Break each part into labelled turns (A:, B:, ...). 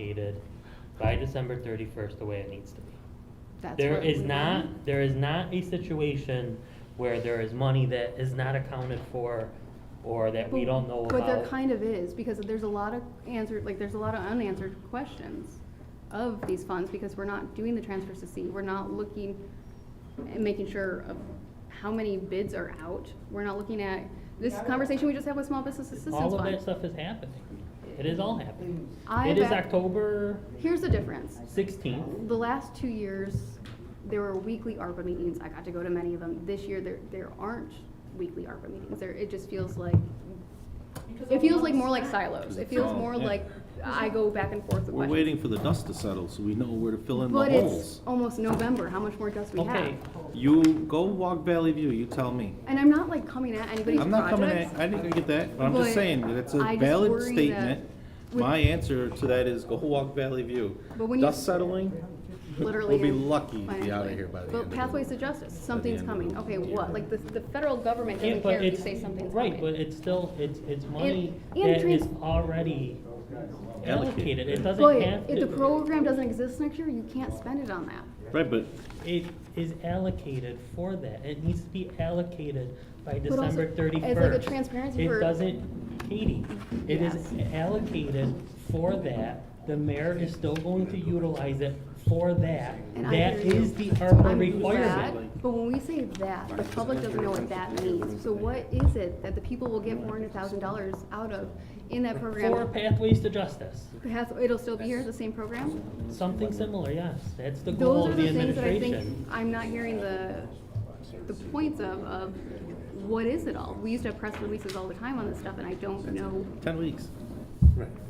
A: located by December thirty-first the way it needs to be.
B: That's
A: There
B: what
A: is
B: we
A: not,
B: want.
A: there is not a situation where there is money that is not accounted for or that we
B: But-
A: don't know about.
B: But there kind of is, because there's a lot of answered, like, there's a lot of unanswered questions of these funds, because we're not doing the transfers to see, we're not looking and making sure of how many bids are out, we're not looking at, this conversation we just had with Small Business Assistance
A: All of that
B: Fund.
A: stuff is happening. It is all happening.
B: I
A: It is
B: back-
A: October
B: Here's the difference,
A: sixteenth.
B: the last two years, there were weekly ARPA meetings, I got to go to many of them, this year, there, there aren't weekly ARPA meetings, there, it just feels like, it feels like more like silos, it feels more
C: Yeah.
B: like I go back and forth with
C: We're
B: questions.
C: waiting for the dust to settle so we know where to fill in the
B: But it's
C: holes.
B: almost November, how much more dust we have?
A: Okay,
C: You go walk Valley View, you tell me.
B: And I'm not like coming at anybody's
C: I'm not coming
B: projects.
C: at, I didn't get that, but I'm
B: But
C: just saying that it's a
B: I just
C: valid
B: worry that
C: statement.
B: with-
C: My answer to that is go walk Valley View.
B: But when you-
C: Dust settling,
B: Literally
C: we'll be
B: in-
C: lucky to be out
B: financially.
C: of here by the end of
B: But
C: the
B: pathways to justice, something's
C: end of
B: coming,
C: the-
B: okay,
C: yeah.
B: what, like the, the federal government
A: Yeah,
B: doesn't
A: but
B: care if you
A: it's-
B: say something's coming.
A: Right, but it's still, it's, it's money
B: and
A: that
B: trans-
A: is already allocated. It doesn't have
B: But
A: to.
B: if the program doesn't exist next year, you can't spend it on that.
C: Right, but
A: It is allocated for that. It needs to be allocated by
B: But also,
A: December
B: as like a
A: thirty-first.
B: transparency
A: It
B: for-
A: doesn't, Katie, it is
B: Yes.
A: allocated for that. The mayor is still going to utilize it for that.
B: And I
A: That
B: hear you.
A: is the ARPA
B: I'm
A: requirement.
B: glad, But when we say that, the public doesn't know what that means, so what is it that the people will get four hundred thousand dollars out of in that
A: For
B: program?
A: Pathways to Justice,
B: Path- It'll still be here, the same program?
A: something similar, yes. That's the goal
B: Those are
A: of the
B: the things that I
A: administration.
B: think I'm not hearing the, the points of, of what is it all? We used to have press releases all the time on this stuff and I don't know
C: ten weeks.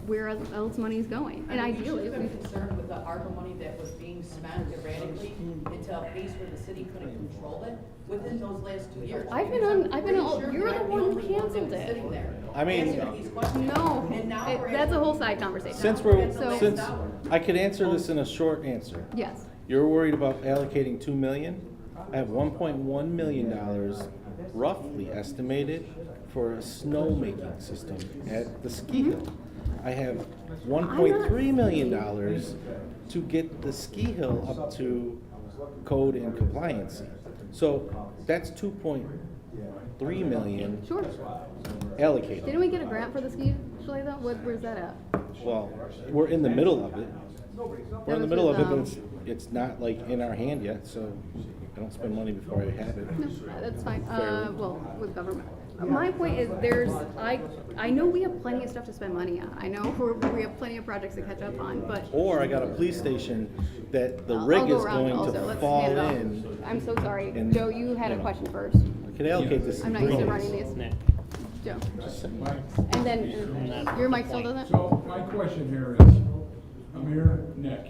B: where else money is going. And ideally,
D: We should have been
B: we-
D: concerned with the ARPA money that was being spent erratically until a place where the city couldn't control it within those last two years.
B: I've been on- I've been on-
D: Pretty sure
B: you're the
D: I'm
B: one who
D: only that was
B: canceled it.
D: Sitting there.
C: I mean-
D: Answering these questions.
B: no,
D: And now
B: it-
D: we're
B: that's a
D: asking-
B: whole side conversation.
C: Since
B: So-
C: we're, since, I could answer this in a short answer.
B: Yes,
C: You're worried about allocating two million? I have one point one million dollars roughly estimated for a snowmaking system at the ski hill. I have one point three million dollars to get the ski hill up to code and compliance. So that's two point three million
B: sure. Didn't
C: allocated.
B: we get a grant for the ski chalet though? What, where's that at?
C: Well, we're in the middle of it. We're in the middle of it, but it's, it's not like in our hand yet, so I don't spend money before I have it.
B: No, that's fine, uh, well, with government. My point is, there's, I, I know we have plenty of stuff to spend money on, I know we're, we have plenty of projects to catch up on, but.
C: Or I got a police station that the
B: I'll-
C: rig
B: I'll go
C: is
B: around
C: going
B: also.
C: to
B: Let's
C: fall
B: hand it off.
C: in.
B: I'm so sorry.
C: and-
B: Joe, you had a
C: Yeah.
B: question first.
C: I could allocate this
B: I'm not
C: in
B: used
C: three
B: to running
C: days.
B: these.
A: Nick,
B: Joe.
C: Just saying.
B: And then, uh, your mic still doesn't?
E: So my question here is, Amir Nick,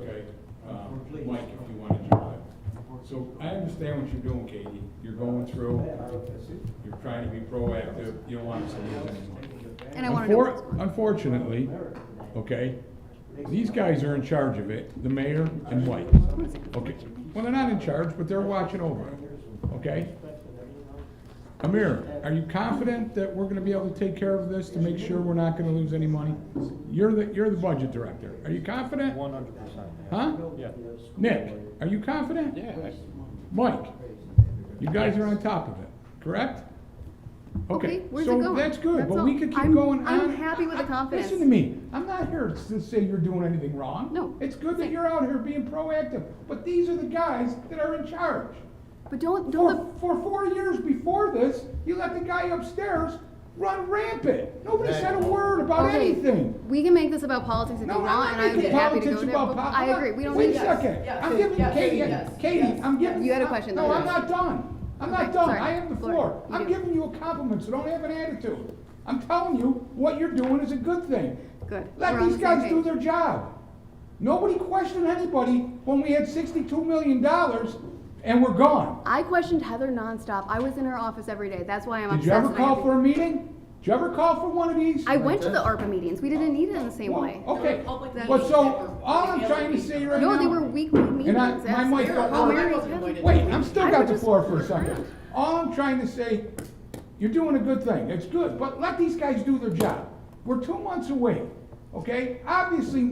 E: okay, um, Mike, if you want to jump in. So I understand what you're doing, Katie. You're going through, you're trying to be proactive, you don't want us to lose any money.
B: And I wanna know.
E: Unfor- Unfortunately, okay, these guys are in charge of it, the mayor and Mike. Okay, well, they're not in charge, but they're watching over it, okay? Amir, are you confident that we're gonna be able to take care of this to make sure we're not gonna lose any money? You're the, you're the budget director. Are you confident? One hundred percent. Huh? Yeah. Nick, are you confident?
C: Yeah, I-
E: Mike, you guys are on top of it, correct?
B: Okay, where's it
E: So
B: going?
E: that's good,
B: That's
E: but we
B: all.
E: could
B: I'm-
E: keep going on.
B: I'm happy with the
E: I-
B: confidence.
E: Listen to me, I'm not here to say you're doing anything wrong.
B: No,
E: It's good that
B: same.
E: you're out here being proactive, but these are the guys that are in charge.
B: But don't,
E: For,
B: don't,
E: for four years before this, you let the guy upstairs run rampant. Nobody said a word
B: the-
E: about
B: okay,
E: anything.
B: we can make this about politics if you
E: No,
B: want,
E: I'm
B: and
E: not
B: I'm
E: making
B: happy to
E: politics
B: go there,
E: about
B: but
E: politics.
B: I agree, we don't
E: Wait
B: need
E: a
B: this.
E: second,
D: yes,
E: I'm giving
D: yes,
E: Katie,
D: yes,
E: Katie,
D: yes.
E: I'm giving.
B: You had a question,
E: No,
B: Loretta.
E: I'm not done, I'm
B: Okay,
E: not done,
B: sorry.
E: I have the
B: Loretta,
E: floor.
B: you
E: I'm
B: do.
E: giving you a compliment, so don't have an attitude. I'm telling you, what you're doing is a good thing.
B: Good. We're
E: Let
B: on
E: these
B: the same
E: guys do
B: page.
E: their job. Nobody questioned anybody when we had sixty-two million dollars and we're gone.
B: I questioned Heather nonstop, I was in her office every day, that's why I'm
E: Did
B: obsessed.
E: you ever
B: and I have
E: call
B: to-
E: for a meeting? Did you ever call for one of these?
B: I went to the ARPA meetings, we didn't need it in the same
E: Well,
B: way.
E: Okay,
D: Public
E: well,
D: meetings that were-
E: so, all I'm trying to say right now.
B: No, they were weekly meetings,
E: And I-
B: that's.
E: my mic got
B: Oh,
E: worked.
B: Mary was having-
E: Wait, I'm still
B: I
E: got
B: would
E: the
B: just-
E: floor for a second. All I'm trying to say, you're doing a good thing, it's good, but let these guys do their job. We're two months away. okay? Obviously,